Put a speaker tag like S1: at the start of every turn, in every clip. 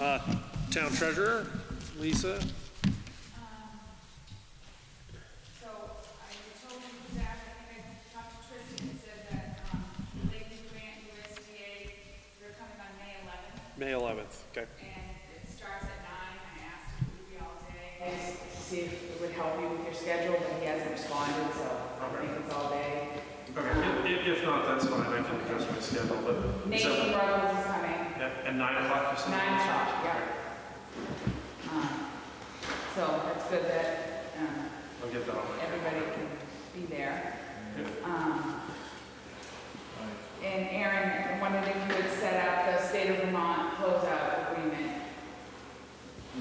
S1: Uh, Town treasurer, Lisa?
S2: So I told him that, I think I talked to Tristan, and said that, um, the Lakeview Grant USDA, they're coming on May eleventh,
S1: May 11th, okay.
S2: and it starts at nine, I asked if it would be all day.
S3: I just to see if it would help you with your schedule, but he hasn't responded, so I think it's all day.
S4: Okay, i- i- if not, that's fine, I can adjust my schedule, but.
S3: Nate
S4: so-
S3: Brothers is coming,
S4: At at nine o'clock or something?
S3: nine o'clock, yeah. Um, So it's good that um,
S4: I'll get that on my.
S3: everybody can be there. Um, And Aaron, I wondered if you would set up the state of Vermont closeout agreement.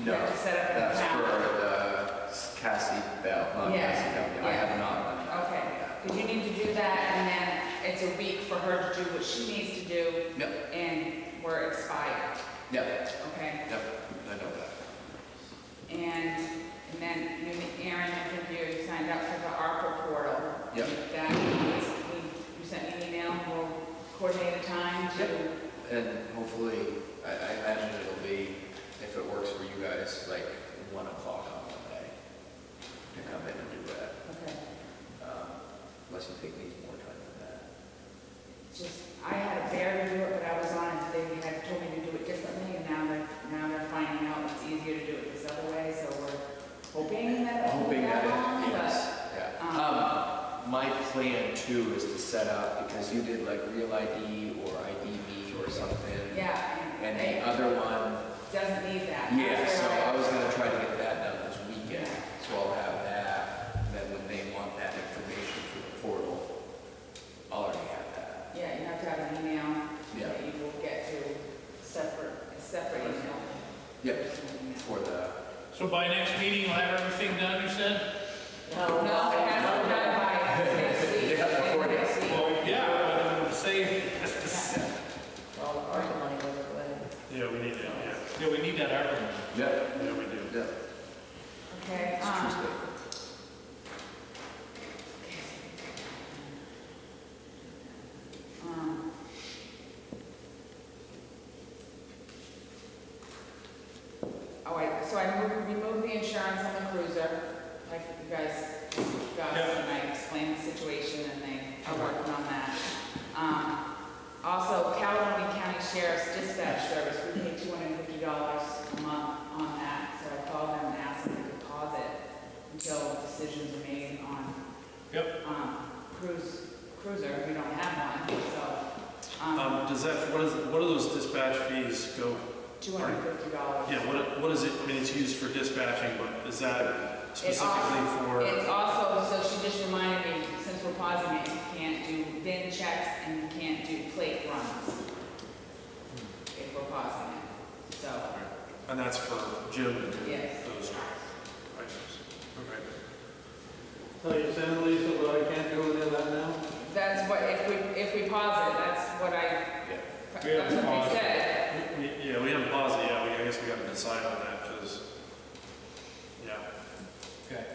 S5: No,
S3: That you set up an
S5: that's
S3: account.
S5: for the Cassie Bell, not
S3: Yeah,
S5: Cassie Bell. I
S3: yeah.
S5: have not done that.
S3: Okay, because you need to do that, and then it's a week for her to do what she needs to do,
S5: Yep,
S3: and we're expired,
S5: yep,
S3: okay?
S5: yep, I know that.
S3: And, and then, maybe Aaron, I think you signed up for the ARPA portal.
S5: Yep.
S3: That, is- we- you sent me an email, we'll coordinate a time to,
S5: And hopefully, I, I imagine it'll be, if it works for you guys, like one o'clock on Monday to come in and do that.
S3: okay,
S5: Um, Unless you think needs more time than that.
S3: just, I had a bear to do it, but I was on it, they had told me to do it differently, and now they're, now they're finding out it's easier to do it this other way, so we're hoping that it'll be
S5: Hoping that
S3: that
S5: it,
S3: long, but.
S5: yes, yeah. Um, my plan too is to set up, because you did like Real ID or IDV or something.
S3: Yeah,
S5: And
S3: and
S5: the
S3: it
S5: other one,
S3: doesn't need that.
S5: yeah, so
S3: That's
S5: I was
S3: right.
S5: gonna try to get that done this weekend, so I'll have that. and Then when they want that information through the portal, I'll already have that.
S3: Yeah, you have to have an email
S5: Yeah.
S3: that you will get to separate, a separate email.
S5: Yep, for the,
S6: So by next meeting, we'll have everything done, you said?
S3: No, it has to be done by next week.
S5: Yeah, before next
S3: week.
S6: Well, yeah, but say,
S7: Well, our money goes away.
S4: Yeah, we need it, yeah,
S6: yeah, we need that argument.
S5: yep,
S4: yeah, we do.
S5: yep,
S3: Okay,
S5: it's
S3: um,
S5: Tuesday.
S3: um, Oh, I, so I moved, removed the insurance on the cruiser, like you guys got,
S4: Yeah.
S3: and I explained the situation, and they are working on that. Um, also, Caledonia County Sheriff's Dispatch Service, we pay two hundred and fifty dollars a month on that, so I called them and asked them to pause it until decisions are made on
S6: Yep.
S3: um, cruise, cruiser, we don't have one, so,
S4: Um,
S3: um,
S4: does that, what is, what do those dispatch fees go,
S3: two hundred and fifty dollars.
S4: yeah, what, what is it, I mean, it's used for dispatching, but is that specifically for?
S3: It's also, so she just reminded me, since we're pausing it, you can't do VIN checks and you can't do plate runs if we're pausing it, so,
S4: And that's for Jim and
S3: yes.
S4: those items, okay.
S8: So you're saying, Lisa, that I can't do any of that now?
S3: That's what, if we, if we pause it, that's what I,
S5: Yeah.
S3: that's
S6: We have to
S3: what
S6: pause
S3: they
S6: it.
S3: said.
S4: We- we- Yeah, we haven't paused it yet, we, I guess we gotta decide on that, because, yeah.
S6: Okay.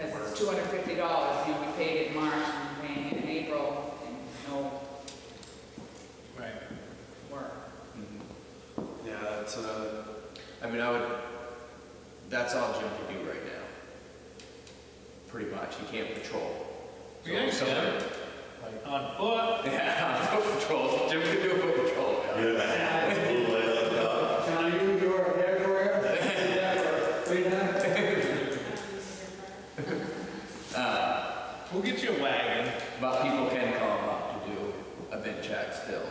S3: Because it's two hundred and fifty dollars, you know, we paid it in March and we're paying it in April and no
S6: Right.
S3: work.
S5: Mhm.
S4: Yeah, that's, uh,
S5: I mean, I would, that's all Jim can do right now. Pretty much, he can't patrol.
S6: We actually have, like, on foot,
S5: Yeah, foot patrol, Jim can do foot patrol now.
S8: Can I use your hair dryer? Yeah, Right now?
S5: Uh,
S6: we'll get you a wagon.
S5: But people can call him up to do a vent check still,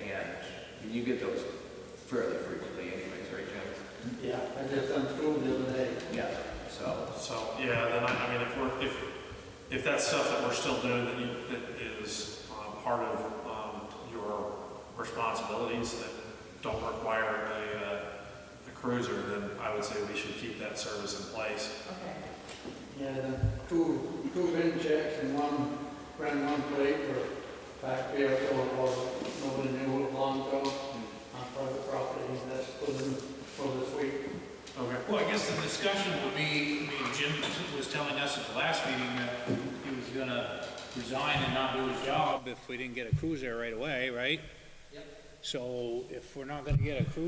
S5: and you get those fairly frequently anyways, right, Jim?
S8: Yeah, I just unscrewed the other day.
S5: Yeah. So,
S4: so, yeah, then I, I mean, if we're, if, if that's stuff that we're still doing that you, that is, um, part of, um, your responsibilities that don't require a, uh, a cruiser, then I would say we should keep that service in place.
S3: Okay.
S8: Yeah, the two, two bin checks and one, ran one plate for back there, so it was, nobody knew what long ago. On private property, and that's for the, for this week.
S4: Okay.
S6: Well, I guess the discussion would be, I mean, Jim was telling us at the last meeting that he was gonna resign and not do his job if we didn't get a cruiser right away, right? Yep. So if we're not gonna get a cruiser